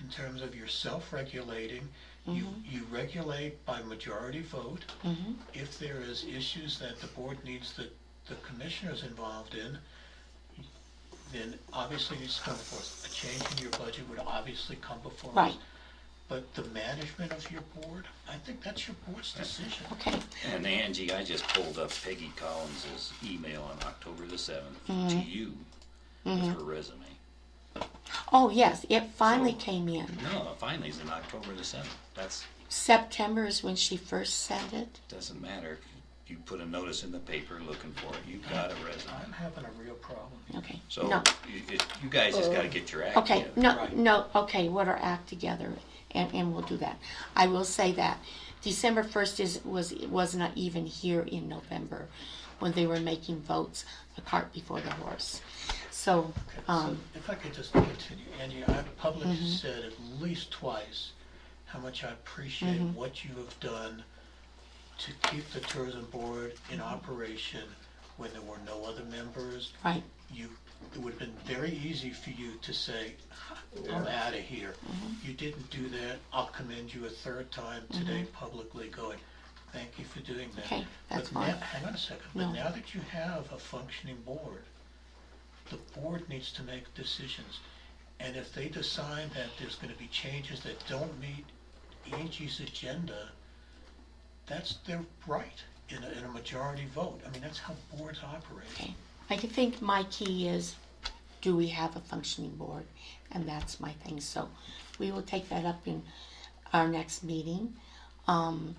in terms of your self-regulating. You, you regulate by majority vote. If there is issues that the board needs the, the commissioners involved in, then obviously it's come before us. A change in your budget would obviously come before us. Right. But the management of your board, I think that's your board's decision. Okay, And Angie, I just pulled up Peggy Collins's email on October the seventh to Mm-hmm. you with her resume. oh, yes, it finally So- came in. No, finally, it's in October the seventh. That's September is when she first sent it. doesn't matter. If You put a notice in the paper looking for it. You got a I'm resume. having a real problem. Okay, So no, you, it- you guys just got to get your act okay, together. no, Right. no, okay, what our act together, and, and we'll do that. I will say that December first is, was, was not even here in November when they were making votes, the cart before the horse. So, Okay, so um, If I could just continue, Andy, I've publicly said at least twice how much I appreciate what you have done to keep the tourism board in operation when there were no other members. right, You, it would have been very easy for you to say, I'm out of here. Mm-hmm. You didn't do that. I'll commend you a third time today publicly going, thank you for doing that. Mm-hmm. Okay, that's But now- fine. Hang on a second, No. but now that you have a functioning board, the board needs to make decisions. And if they decide that there's gonna be changes that don't meet Angie's agenda, that's their right in a, in a majority vote. I mean, that's how boards operate. okay. I think my key is, do we have a functioning board? And that's my thing, so we will take that up in our next meeting, um,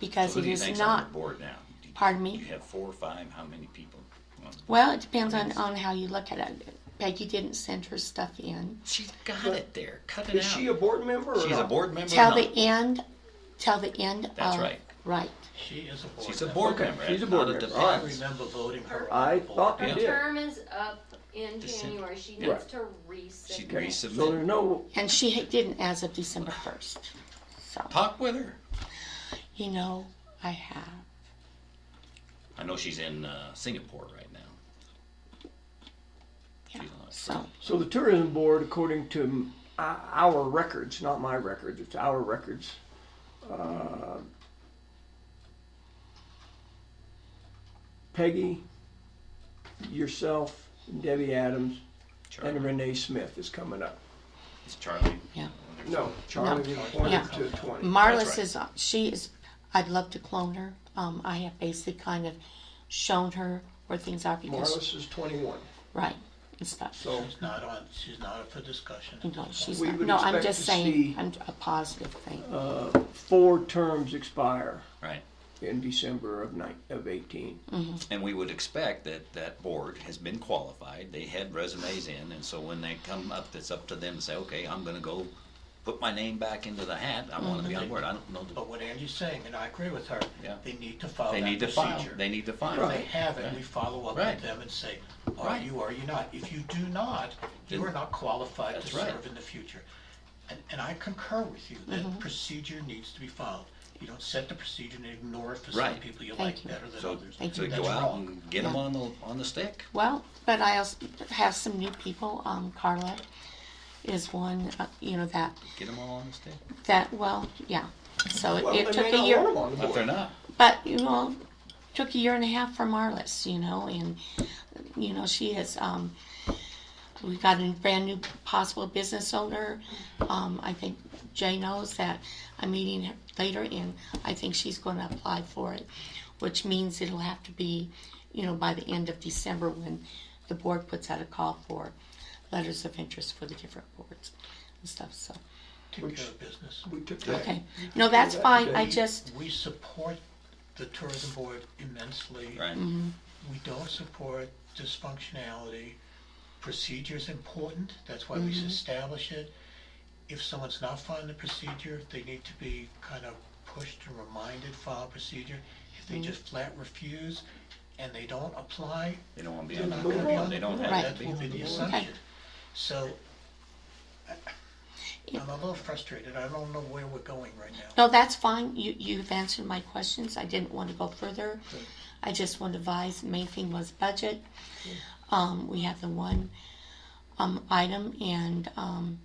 because Who it do you is think's on not, your board now? Do you- pardon me? You have four or five, how many people? Well, Well, it depends on, on how you look at it. Peggy didn't send her stuff in. She's got it there, cut it out. Is she a board member or She's a not? board member or Till not? the end, till the end of. That's right. Right. She is a board She's a member. board Okay, member. she's a not board member. dependent. All I right. remember voting her on I the board. thought Yeah. you Her did. term is up in December. January. She Yeah. needs to She resubmit. So there's resubmitted. no, And she ha- didn't as of December first. So, Talk with her. you know, I have. I know she's in uh, Singapore right now. Yeah. She's on a So, so the tourism board, according to m- o- our records, not my records, it's our records. uh, Peggy, yourself, Debbie Adams, and Charlie. Renee Smith is coming up. It's Charlie. yeah. No, Charlie was appointed to twenty. Marlis right. is, uh, she is, I'd love to clone her. Um, I have basically kind of shown her where things are because, Marlis is twenty-one, right, and stuff. so She's not on, she's not up for discussion. Mm-hmm. No, she's We not, would no, I'm expect just to saying, see- I'm a positive thing. four terms expire Right. in December of nine, of eighteen. And we would expect that that board has been qualified. They had resumes in, and so when they come up, it's up to them to say, okay, I'm going to go put my name back into the hat. I want to Mm-hmm. be on board. I don't know. The, But what Angie's saying, and I agree with her, Yeah. they need to follow Oh, they that need to file. procedure. They need to file. If they haven't, we follow up Right. with them and say, are Right. you, are you not? If you do not, Then- you are not qualified to That's right. Mm-hmm. serve in the future. And, and I concur with you, that procedure needs to be followed. You don't set the procedure and ignore it for some Right. people you Thank like you. better than So, others. Thank so you. go That's out wrong. and get them Yeah. on the on the stick. Well, but I also have some new people. Um, Carla is one, uh, you know, that, Get them all on the stick. that, well, yeah. So it, Well, it they may took a not want 'em year, on the But they're board. not. but, you know, took a year and a half from Marlis, you know, and, you know, she has, um, we got a brand new possible business owner. Um, I think Jay knows that I'm meeting her later and I think she's gonna apply for it, which means it'll have to be, you know, by the end of December when the board puts out a call for letters of interest for the different boards and stuff, so, Take care of business. We took that. okay. No, that's fine, I just, We support the tourism board immensely. Right. Mm-hmm. we don't support dysfunctionality. Procedure's important, that's why we Mm-hmm. establish it. If someone's not following the procedure, they need to be kind of pushed and reminded, follow procedure. If Mm-hmm. they just flat refuse and they don't apply, They don't want to be they're on not the gonna be on board. the They don't board. have That to be. will on be the the board. assumption. So, I- I'm a little frustrated, I don't know where we're going right now. no, that's fine, you, you've answered my questions, I didn't wanna go further. I just want to advise, main thing was budget. Um, we have the one, um, item and, um,